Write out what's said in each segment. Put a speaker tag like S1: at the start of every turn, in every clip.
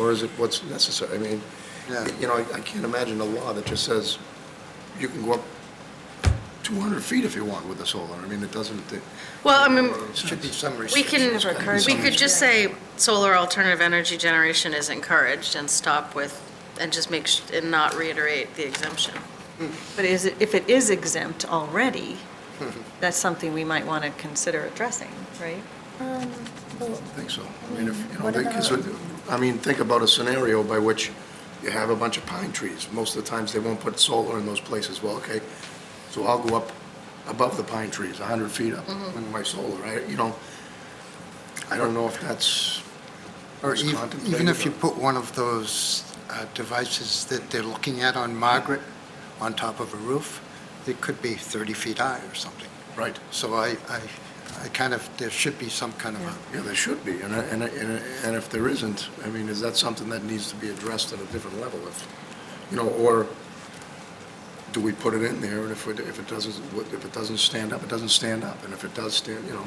S1: or is it what's necessary? I mean,
S2: Yeah.
S1: you know, I- I can't imagine a law that just says you can go up 200 feet if you want with a solar. I mean, it doesn't, it
S3: Well, I mean,
S1: should be some
S3: we
S1: restrictions.
S3: can,
S1: There's gotta be
S3: we
S1: some
S3: could just say solar alternative energy generation is encouraged and stop with, and just make, sh- and not reiterate the exemption.
S4: But is it, if it is exempt already, that's something we might want to consider addressing, right?
S1: I think so. I mean, if, you know,
S5: What
S1: because,
S5: about-
S1: I mean, think about a scenario by which you have a bunch of pine trees. Most of the times, they won't put solar in those places. Well, okay, so I'll go up above the pine trees, 100 feet up
S3: Mm-hmm.
S1: with my solar, I, you know, I don't know if that's
S2: Or
S1: was
S2: ev-
S1: contemplated
S2: even if you
S1: or-
S2: put one of those uh, devices that they're looking at on Margaret on top of a roof, it could be 30 feet high or something.
S1: right.
S2: So I, I, I kind of, there should be some kind of a
S1: Yeah, there should be, and, I- and, I- and I- and if there isn't, I mean, is that something that needs to be addressed at a different level? If, you know, or do we put it in there, and if it, if it doesn't, what- if it doesn't stand up, it doesn't stand up, and if it does stand, you know,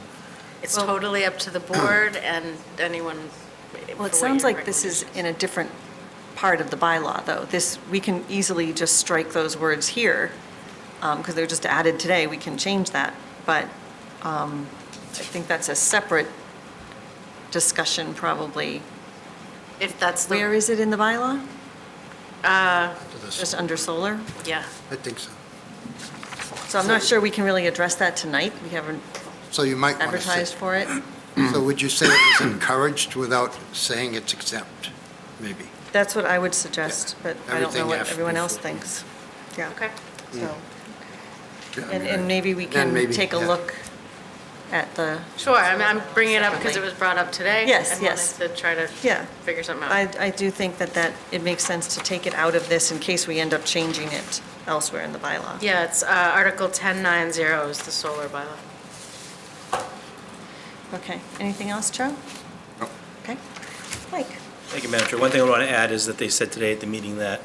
S3: It's totally up to the board and anyone.
S4: Well, it sounds like this is in a different part of the bylaw, though. This, we can easily just strike those words here, because they're just added today, we can change that. But um, I think that's a separate discussion, probably.
S3: If that's the.
S4: Where is it in the bylaw?
S2: to this.
S4: Just under solar?
S3: Yeah.
S2: I think so.
S4: So I'm not sure we can really address that tonight. We haven't
S2: So you might want to
S4: advertised
S2: say.
S4: for it.
S2: So would you say it was encouraged without saying it's exempt, maybe?
S4: That's what I would suggest, but I don't know
S2: Everything
S4: what
S2: after
S4: everyone else
S2: before.
S4: thinks. Yeah.
S3: Okay.
S2: Mm.
S4: So,
S1: yeah, I
S4: and,
S1: mean,
S4: and maybe we
S2: Then
S4: can
S2: maybe,
S4: take a
S2: yeah.
S4: look at the,
S3: Sure, I'm, I'm bringing it up because it
S4: Separately.
S3: was brought up today.
S4: Yes,
S3: and
S4: yes.
S3: wanted to try to
S4: Yeah.
S3: figure something out.
S4: I, I do think that that, it makes sense to take it out of this in case we end up changing it elsewhere in the bylaw.
S3: Yeah, it's uh, Article 1090 is the solar bylaw.
S4: Okay, anything else, Joe?
S1: No.
S4: Okay. Mike?
S6: Thank you, Madam Chair. One thing I want to add is that they said today at the meeting that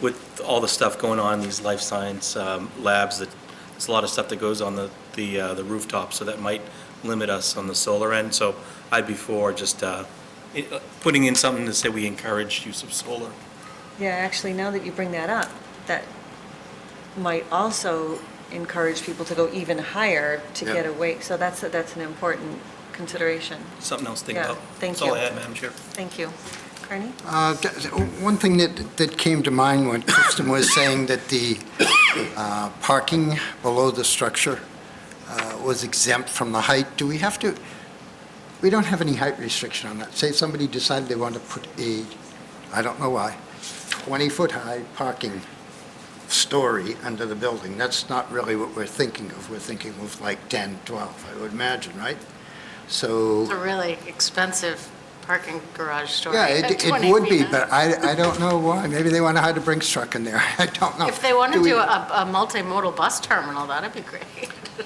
S6: with all the stuff going on, these life science um, labs, that there's a lot of stuff that goes on the, the uh, the rooftop, so that might limit us on the solar end. So I'd be for just uh, i- uh, putting in something to say we encourage use of solar.
S4: Yeah, actually, now that you bring that up, that might also encourage people to go even higher to
S2: Yeah.
S4: get away. So that's, that's an important consideration.
S6: Something else to think
S4: Yeah,
S6: about.
S4: thank
S6: That's all I
S4: you.
S6: had, Madam Chair.
S4: Thank you. Carney?
S2: Uh, d- d- One thing that, that came to mind when Kristen was saying that the uh, parking below the structure uh, was exempt from the height, do we have to, we don't have any height restriction on that. Say somebody decided they wanted to put a, I don't know why, 20-foot-high parking story under the building. That's not really what we're thinking of. We're thinking of like 10, 12, I would imagine, right? So...
S3: It's a really expensive parking garage story.
S2: Yeah, it, it would be, but I, I don't know why. Maybe they want to hide a Brinks truck in there. I don't know.
S3: If they want to
S2: uh, we-
S3: do a, a multimodal bus terminal, that'd be great.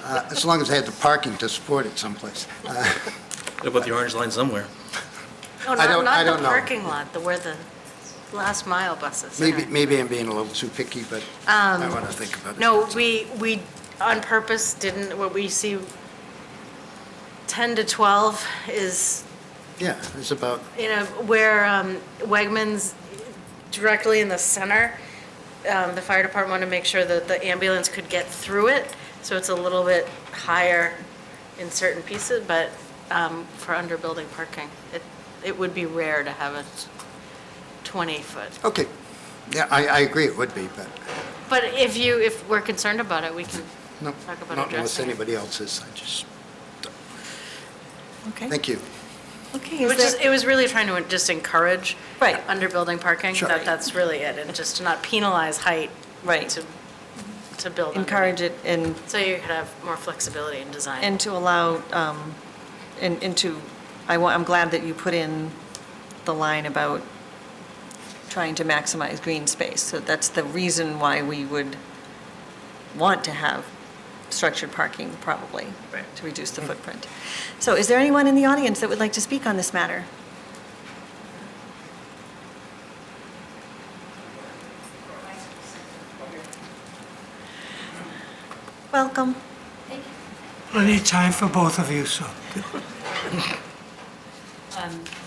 S2: uh, As long as they had the parking to support it someplace. Uh,
S6: What about the orange line somewhere?
S3: No,
S2: I
S3: not,
S2: don't- I
S3: not the
S2: don't know.
S3: parking lot, the, where the last mile buses.
S2: Maybe,
S3: enter.
S2: maybe I'm being a little too picky, but I want to think about it.
S3: Um, No, we, we on purpose didn't, what we see, 10 to 12 is
S2: Yeah, it's about,
S3: you know, where um, Wegmans directly in the center, um, the fire department wanted to make sure that the ambulance could get through it, so it's a little bit higher in certain pieces, but um, for underbuilding parking, it, it would be rare to have a 20-foot.
S2: okay. Yeah, I, I agree it would be, but
S3: But if you, if we're concerned about it, we can
S2: no,
S3: talk about
S2: not unless
S3: addressing it.
S2: anybody else is. I just,
S4: Okay.
S2: thank you.
S3: It
S4: Okay,
S3: was
S4: is
S3: just,
S4: there,
S3: it was really trying to just encourage
S4: Right.
S3: underbuilding parking,
S2: Sure.
S3: that that's really it, and just to not penalize height
S4: right,
S3: to, to build underneath.
S4: encourage it and,
S3: So you could have more flexibility in design.
S4: and to allow, um, and, and to, I want, I'm glad that you put in the line about trying to maximize green space. So that's the reason why we would want to have structured parking, probably.
S3: Right.
S4: To reduce the footprint. So is there anyone in the audience that would like to speak on this matter? Welcome.
S7: Plenty of time for both of you, so.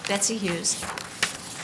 S5: Betsy Hughes,